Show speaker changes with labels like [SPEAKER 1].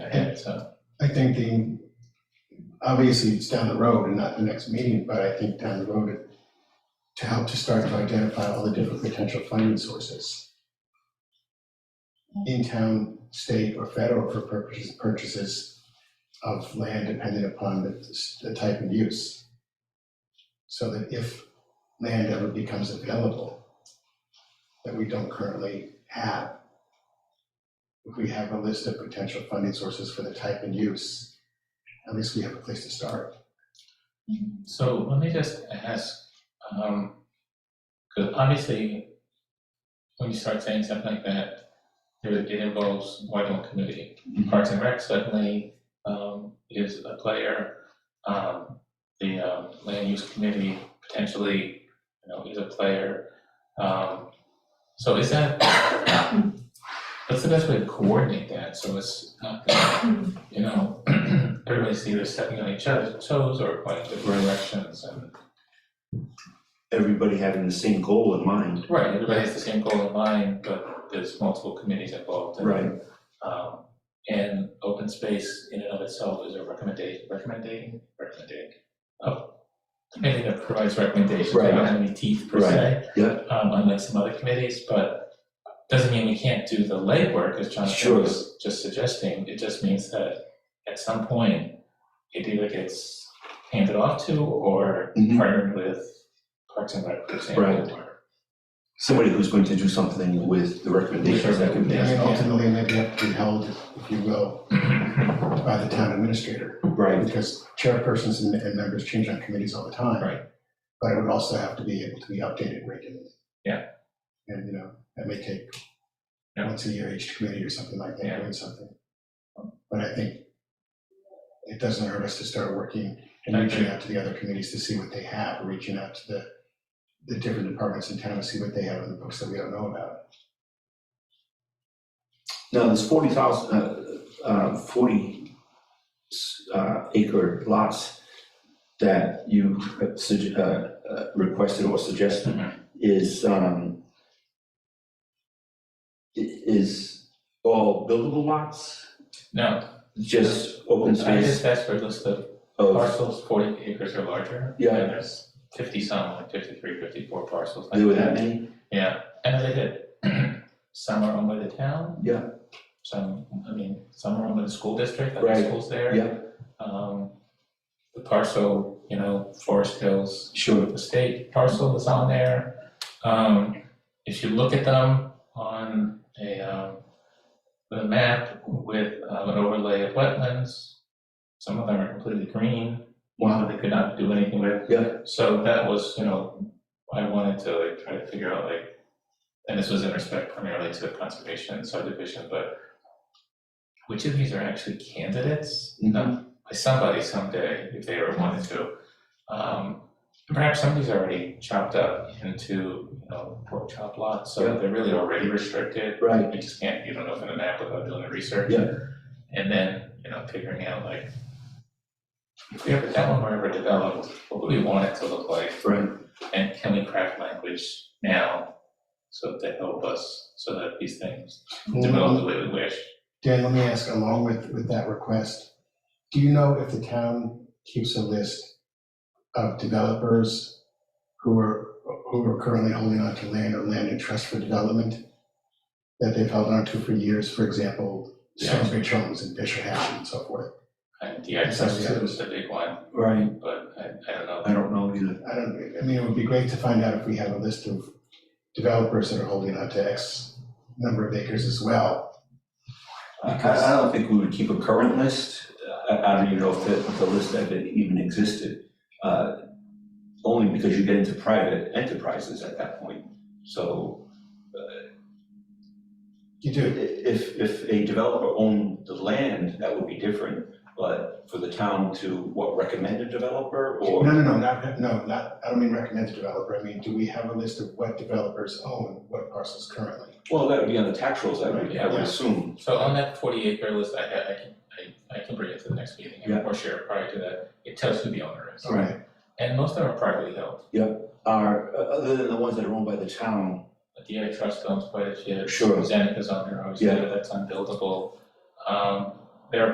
[SPEAKER 1] Okay, so,
[SPEAKER 2] I think the, obviously it's down the road and not the next meeting, but I think down the road to help to start to identify all the different potential funding sources in town, state, or federal for purposes, purchases of land depending upon the, the type and use. So that if land ever becomes available that we don't currently have, if we have a list of potential funding sources for the type and use, at least we have a place to start.
[SPEAKER 1] so let me just ask, um, because obviously, when you start saying something like that, there, it involves Whitehall Committee. Parks and Rec certainly, um, is a player. Um, the, um, Land Use Committee potentially, you know, is a player. Um, so is that, what's the best way to coordinate that, so it's not that you know, everybody's either stepping on each other's toes or pointing different directions and.
[SPEAKER 3] everybody having the same goal in mind.
[SPEAKER 1] Right, everybody has the same goal in mind, but there's multiple committees involved and.
[SPEAKER 3] Right.
[SPEAKER 1] Um, and open space in and of itself is a recommendation, recommending, recommending, oh, anything that provides recommendations, they don't
[SPEAKER 3] Right.
[SPEAKER 1] have any teeth per se.
[SPEAKER 3] yeah.
[SPEAKER 1] Um, unlike some other committees, but doesn't mean we can't do the legwork, as Jonathan
[SPEAKER 3] Sure.
[SPEAKER 1] was just suggesting, it just means that at some point, it either gets handed off to or
[SPEAKER 3] Mhm.
[SPEAKER 1] partnered with Parks and Rec, for
[SPEAKER 3] Right.
[SPEAKER 1] example, or
[SPEAKER 3] Somebody who's going to do something with the recommendations that we
[SPEAKER 1] Yes,
[SPEAKER 2] I mean,
[SPEAKER 3] make.
[SPEAKER 1] yeah.
[SPEAKER 2] ultimately, maybe have to be held, if you will, by the town administrator,
[SPEAKER 3] Right,
[SPEAKER 2] because chairpersons and, and members change on committees all the time.
[SPEAKER 1] Right.
[SPEAKER 2] But it would also have to be able to be updated regularly.
[SPEAKER 1] Yeah.
[SPEAKER 2] And, you know, that may take
[SPEAKER 1] Yeah.
[SPEAKER 2] once a year each committee or something like that,
[SPEAKER 1] Yeah.
[SPEAKER 2] doing something. But I think it doesn't hurt us to start working and
[SPEAKER 1] I
[SPEAKER 2] reaching
[SPEAKER 1] agree.
[SPEAKER 2] out to the other committees to see what they have, reaching out to the, the different departments in town to see what they have in the books that we don't know about.
[SPEAKER 3] now this forty thousand, uh, uh, forty s- uh, acre lots that you uh, sug- uh, uh, requested or suggested is, um, i- is all buildable lots,
[SPEAKER 1] No,
[SPEAKER 3] just open
[SPEAKER 1] I
[SPEAKER 3] space
[SPEAKER 1] just asked for a list of
[SPEAKER 3] of,
[SPEAKER 1] parcels forty acres or larger.
[SPEAKER 3] Yeah.
[SPEAKER 1] And there's fifty some, like 53, 54 parcels like that.
[SPEAKER 3] there were that many?
[SPEAKER 1] Yeah, and they did, some are owned by the town.
[SPEAKER 3] Yeah.
[SPEAKER 1] Some, I mean, some are owned by the school district, like the
[SPEAKER 3] Right,
[SPEAKER 1] schools there.
[SPEAKER 3] yeah.
[SPEAKER 1] Um, the parcel, you know, Forest Hills
[SPEAKER 3] Sure.
[SPEAKER 1] the state parcel that's on there. Um, if you look at them on a, um, the map with um, an overlay of wetlands, some of them are completely green, one that they could not do anything with.
[SPEAKER 3] Yeah.
[SPEAKER 1] So that was, you know, I wanted to like try to figure out like, and this was in respect primarily to conservation and subdivision, but which of these are actually candidates?
[SPEAKER 3] Mhm.
[SPEAKER 1] Um, By somebody someday, if they ever wanted to. Um, Perhaps somebody's already chopped up into, you know, pork chop lots, so
[SPEAKER 3] Yeah.
[SPEAKER 1] they're really already restricted.
[SPEAKER 3] Right,
[SPEAKER 1] You just can't, you don't open an app without doing the research.
[SPEAKER 3] Yeah.
[SPEAKER 1] And then, you know, figuring out like, if we ever, that one were ever developed, what would we want it to look like?
[SPEAKER 3] right.
[SPEAKER 1] And can we craft language now so that help us, so that these things develop the way we wish?
[SPEAKER 2] Dan, let me ask, along with, with that request, do you know if the town keeps a list of developers who are, who are currently holding on to land or land in trust for development that they've held on to for years, for example,
[SPEAKER 1] Yeah.
[SPEAKER 2] Stonebridge Homes and Fisher Hatch and so forth?
[SPEAKER 1] And the access to it was the big one,
[SPEAKER 3] Right,
[SPEAKER 1] but I, I don't know.
[SPEAKER 3] I don't know either.
[SPEAKER 2] I don't, I mean, it would be great to find out if we have a list of developers that are holding on to X number of acres as well.
[SPEAKER 3] I, I I don't think we would keep a current list. I, I don't even know if the, the list ever even existed. uh, Only because you get into private enterprises at that point. So
[SPEAKER 2] You
[SPEAKER 3] i-
[SPEAKER 2] do,
[SPEAKER 3] if, if a developer owned the land, that would be different. But for the town to, what, recommend a developer
[SPEAKER 2] No,
[SPEAKER 3] or?
[SPEAKER 2] no, no, not, no, not, I don't mean recommend the developer, I mean, do we have a list of what developers own what parcels currently?
[SPEAKER 3] Well, that would be on the tax rolls, I would, I would
[SPEAKER 2] Yeah.
[SPEAKER 3] assume.
[SPEAKER 1] So on that forty acre list, I I can, I I can bring it to the next meeting
[SPEAKER 3] Yeah.
[SPEAKER 1] or share it prior to that, it tells who the owner is.
[SPEAKER 3] Right.
[SPEAKER 1] And most of them are privately held,
[SPEAKER 3] Are, uh, other than the ones that are owned by the town,
[SPEAKER 1] the DI trust owns quite a few,
[SPEAKER 3] sure,
[SPEAKER 1] Zenica's on there, obviously,
[SPEAKER 3] Yeah.
[SPEAKER 1] that's unbuildable. Um